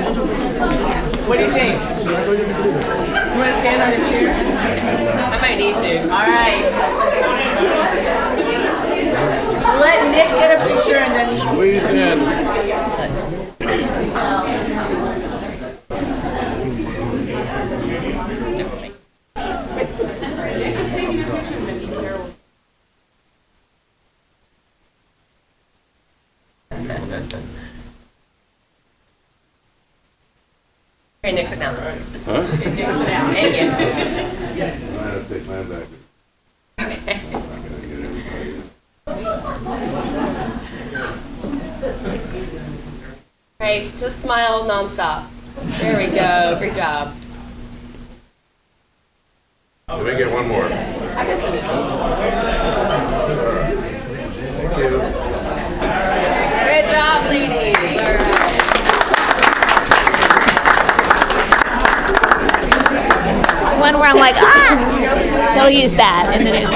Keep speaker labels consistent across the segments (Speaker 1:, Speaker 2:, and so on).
Speaker 1: What do you think? You want to stand on a chair? I might need to. All right. Let Nick get a picture and then.
Speaker 2: Squeeze in.
Speaker 1: Okay, Nick, sit down. Nick, sit down. Thank you.
Speaker 2: I have to take mine back. I'm gonna get everybody.
Speaker 3: Right, just smile nonstop. There we go. Great job.
Speaker 2: Let me get one more. Thank
Speaker 3: I guess it is.
Speaker 2: you.
Speaker 3: Great job, ladies. All right.
Speaker 4: The one where I'm like, ah, they'll use that in the news.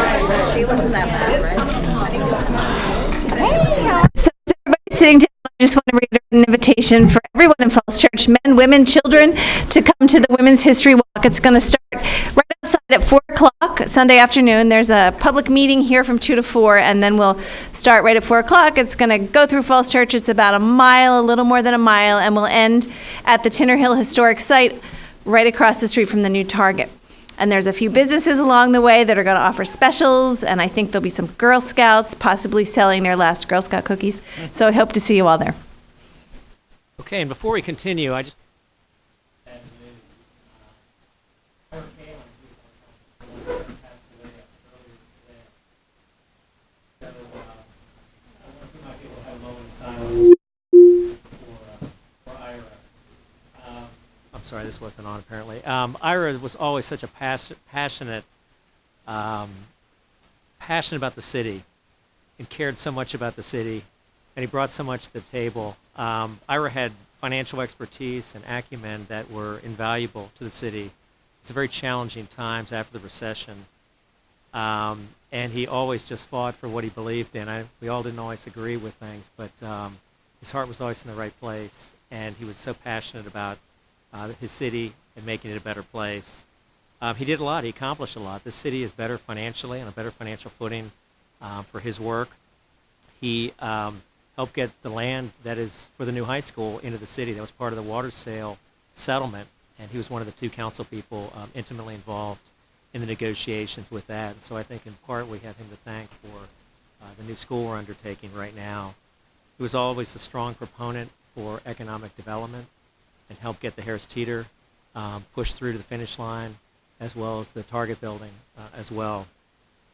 Speaker 5: So as everybody sitting down, I just want to read an invitation for everyone in Falls Church, men, women, children, to come to the Women's History Walk. It's going to start right outside at 4 o'clock Sunday afternoon. There's a public meeting here from 2 to 4, and then we'll start right at 4 o'clock. It's going to go through Falls Church. It's about a mile, a little more than a mile, and we'll end at the Tinner Hill Historic Site right across the street from the new Target. And there's a few businesses along the way that are going to offer specials, and I think there'll be some Girl Scouts possibly selling their last Girl Scout cookies. So I hope to see you all there.
Speaker 6: Okay, and before we continue, I just. I'm sorry, this wasn't on apparently. Um, Ira was always such a pas- passionate, um, passionate about the city and cared so much about the city, and he brought so much to the table. Um, Ira had financial expertise and acumen that were invaluable to the city. It's very challenging times after the recession, um, and he always just fought for what he believed in. I, we all didn't always agree with things, but um, his heart was always in the right place, and he was so passionate about uh, his city and making it a better place. Um, he did a lot. He accomplished a lot. The city is better financially on a better financial footing uh, for his work. He um, helped get the land that is for the new high school into the city. That was part of the water sale settlement, and he was one of the two council people um, intimately involved in the negotiations with that. And so I think in part we have him to thank for uh, the new school we're undertaking right now. He was always a strong proponent for economic development and helped get the Harris Teeter um, pushed through to the finish line, as well as the Target building uh, as well.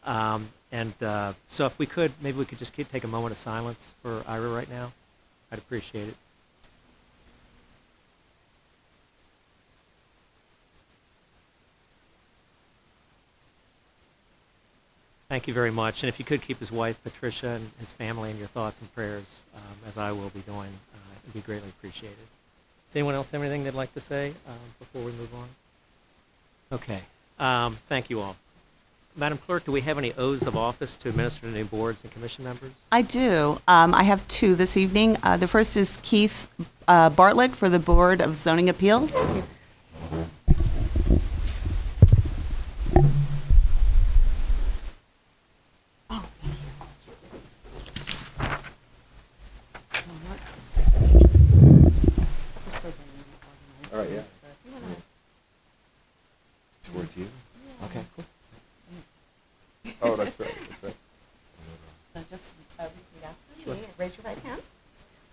Speaker 6: Um, and uh, so, if we could, maybe we could just keep, take a moment of silence for Ira right now. I'd appreciate it. Thank you very much. And if you could keep his wife, Patricia, and his family in your thoughts and prayers, um, as I will be doing, uh, it would be greatly appreciated. Does anyone else have anything they'd like to say um, before we move on? Okay. Um, thank you all. Madam Clerk, do we have any oaths of office to administer to new boards and commission members?
Speaker 7: I do. Um, I have two this evening. Uh, the first is Keith uh, Bartlett for the Board of Zoning Appeals. Oh, thank you. So let's see. We're still getting organized.
Speaker 8: All right, yeah.
Speaker 7: So if you wanna-
Speaker 8: Towards you? Okay, cool. Oh, that's right, that's right.
Speaker 7: So just uh, repeat after me and raise your right hand.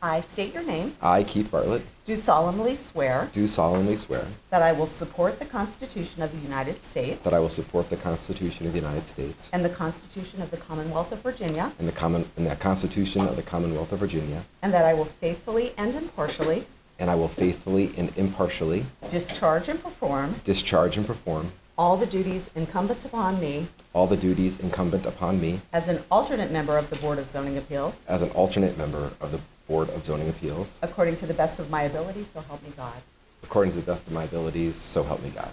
Speaker 7: I state your name,
Speaker 8: I, Keith Bartlett,
Speaker 7: do solemnly swear
Speaker 8: do solemnly swear
Speaker 7: that I will support the Constitution of the United States
Speaker 8: that I will support the Constitution of the United States
Speaker 7: and the Constitution of the Commonwealth of Virginia,
Speaker 8: and the common, and the Constitution of the Commonwealth of Virginia,
Speaker 7: and that I will faithfully and impartially
Speaker 8: and I will faithfully and impartially
Speaker 7: discharge and perform
Speaker 8: discharge and perform
Speaker 7: all the duties incumbent upon me
Speaker 8: all the duties incumbent upon me
Speaker 7: as an alternate member of the Board of Zoning Appeals
Speaker 8: as an alternate member of the Board of Zoning Appeals,
Speaker 7: according to the best of my ability, so help me God.
Speaker 8: according to the best of my abilities, so help me God.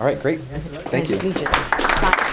Speaker 8: All right, great. Thank you.
Speaker 7: Just need you to sign.